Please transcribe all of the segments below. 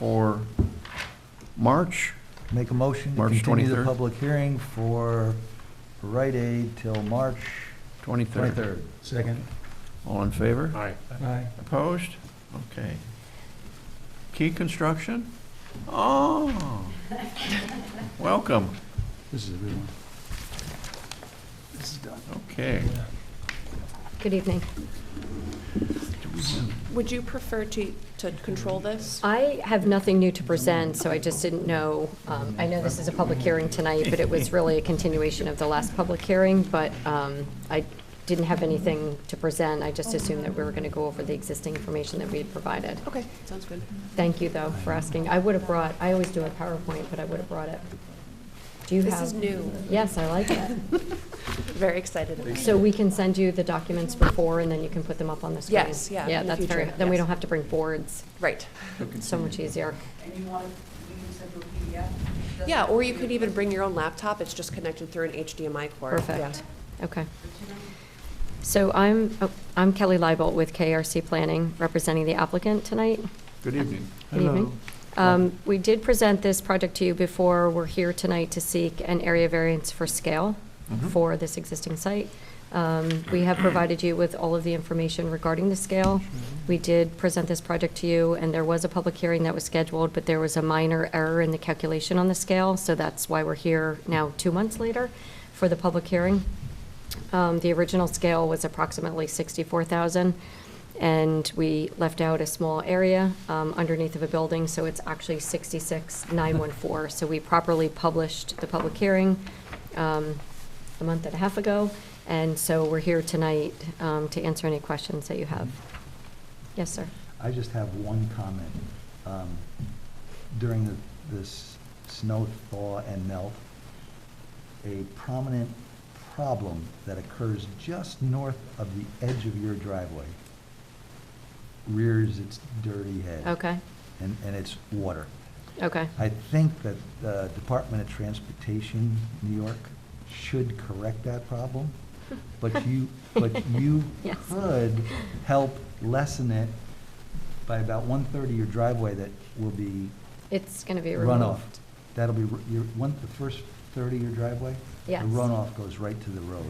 for March. Make a motion to March continue the 23rd. public hearing for Rite Aid till March 23rd. 23rd. Second. All in favor? Aye. Aye. Opposed? Okay. Key Construction? Oh, welcome. This is a good one. This is done. Okay. Good evening. Would you prefer to, to control this? I have nothing new to present, so I just didn't know, um, I know this is a public hearing tonight, but it was really a continuation of the last public hearing, but um, I didn't have anything to present. I just assumed that we were going to go over the existing information that we had provided. Okay, sounds good. Thank you, though, for asking. I would have brought, I always do a PowerPoint, but I would have brought it. Do you have? This is new. Yes, I like it. Very excited. about So it. we can send you the documents before, and then you can put them up on the screen? Yes, yeah, Yeah, in the that's very, future, then we yes. don't have to bring boards. Right. So much easier. And you want, you can send to a PDF? Doesn't Yeah, have or to you be could a- even bring your own laptop. It's just connected through an HDMI cord. Perfect. Yeah. Okay. So I'm, oh, I'm Kelly Leibert with KRC Planning, representing the applicant tonight. Good evening. Good evening. Um, We did present this project to you before. We're here tonight to seek an area variance for scale Mhm. for this existing site. Um, We have provided you with all of the information regarding the scale. We did present this project to you, and there was a public hearing that was scheduled, but there was a minor error in the calculation on the scale, so that's why we're here now, two months later, for the public hearing. Um, The original scale was approximately 64,000, and we left out a small area um, underneath of a building, so it's actually 66,914. So we properly published the public hearing um, a month and a half ago, and so we're here tonight um, to answer any questions that you have. Yes, sir. I just have one comment. Um, During the- this snow thaw and melt, a prominent problem that occurs just north of the edge of your driveway rears its dirty head. Okay, And, and it's water. okay. I think that the Department of Transportation, New York, should correct that problem, but you, but you Yes. could help lessen it by about one-third of your driveway that will be It's going to be removed. runoff. That'll be, r- your, one, the first third of your driveway? Yes. The runoff goes right to the road.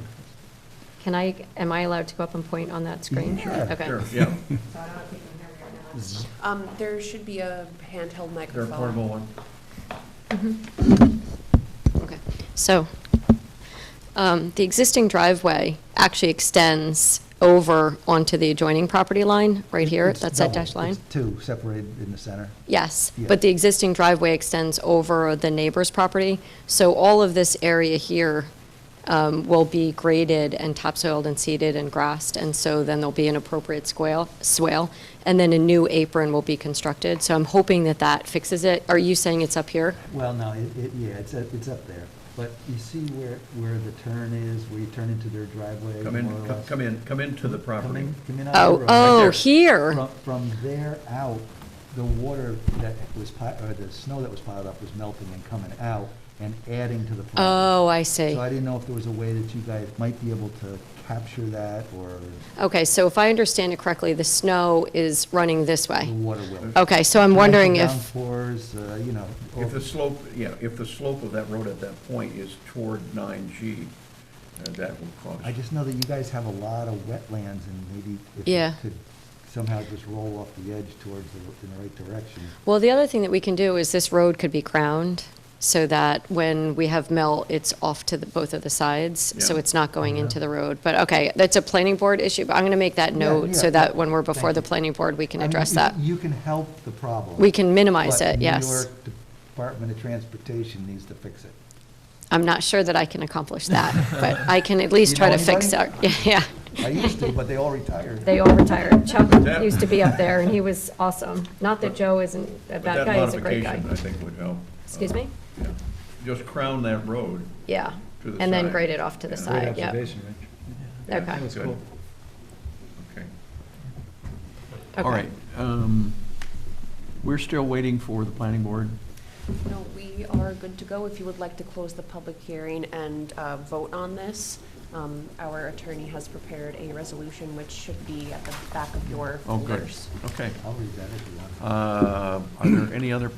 Can I, am I allowed to go up and point on that screen? Yeah, Okay. Sure, So I yeah, don't know if you can hear me or not. Um, there should be a handheld they're microphone. a portable one. Okay, so, um, the existing driveway actually extends over onto the adjoining property line, right here, It's that's that double. dash line? It's two, separated in the center. Yes, Yeah. but the existing driveway extends over the neighbor's property, so all of this area here um, will be graded and topsoiled and seeded and grassed, and so then there'll be an appropriate squale, swale, and then a new apron will be constructed, so I'm hoping that that fixes it. Are you saying it's up here? Well, no, it, it, yeah, it's, up- it's up there, but you see where, where the turn is, where you turn into their driveway? Come more or in, co- less? come in, come into the Come property. in, come in out of the Oh, road. oh, there. here? From, from there out, the water that was pi, or the snow that was piled up was melting and coming out and adding to the problem. Oh, I see. So I didn't know if there was a way that you guys might be able to capture that, or Okay, so if I understand it correctly, the snow is running this the way. water will. Okay, so I'm wondering Torrential if, Downpours, uh, you know. If the slope, yeah, if the slope of that road at that point is toward 9G, uh, that would cause. I just know that you guys have a lot of wetlands and maybe if you Yeah. could somehow just roll off the edge towards the, in the right direction. well, the other thing that we can do is this road could be crowned so that when we have melt, it's off to the, both of the sides, so Yeah. it's not going Yeah. into the road. But okay, that's a planning board issue, but I'm going to make that Yeah, note yeah, Uh, so that yeah. when we're before Thank the you. planning board, we can I mean, address you- that. You can help the problem. We can minimize but it, New yes. York Department of Transportation needs to fix it. I'm not sure that I can accomplish that, but I can at least You try know to fix it. anybody? Yeah. I used to, but they all retired. They all retired. Chuck that- used to be up there, and he was awesome. Not that Joe isn't, a but bad that guy, he's a great guy. modification, I think would help. Uh, Excuse me? Yeah. Just crown that road. Yeah, To the and then side. grade it off to the Yeah. side, yeah. Rich. Okay, That was Good. cool. Okay. All okay. right, um, we're still waiting for the planning board. No, we are good to go. If you would like to close the public hearing and uh, vote on this, Um, Our attorney has prepared a resolution which should be at the back of your Oh, good. folders. Okay. I'll read that if you want. Uh, Are there any other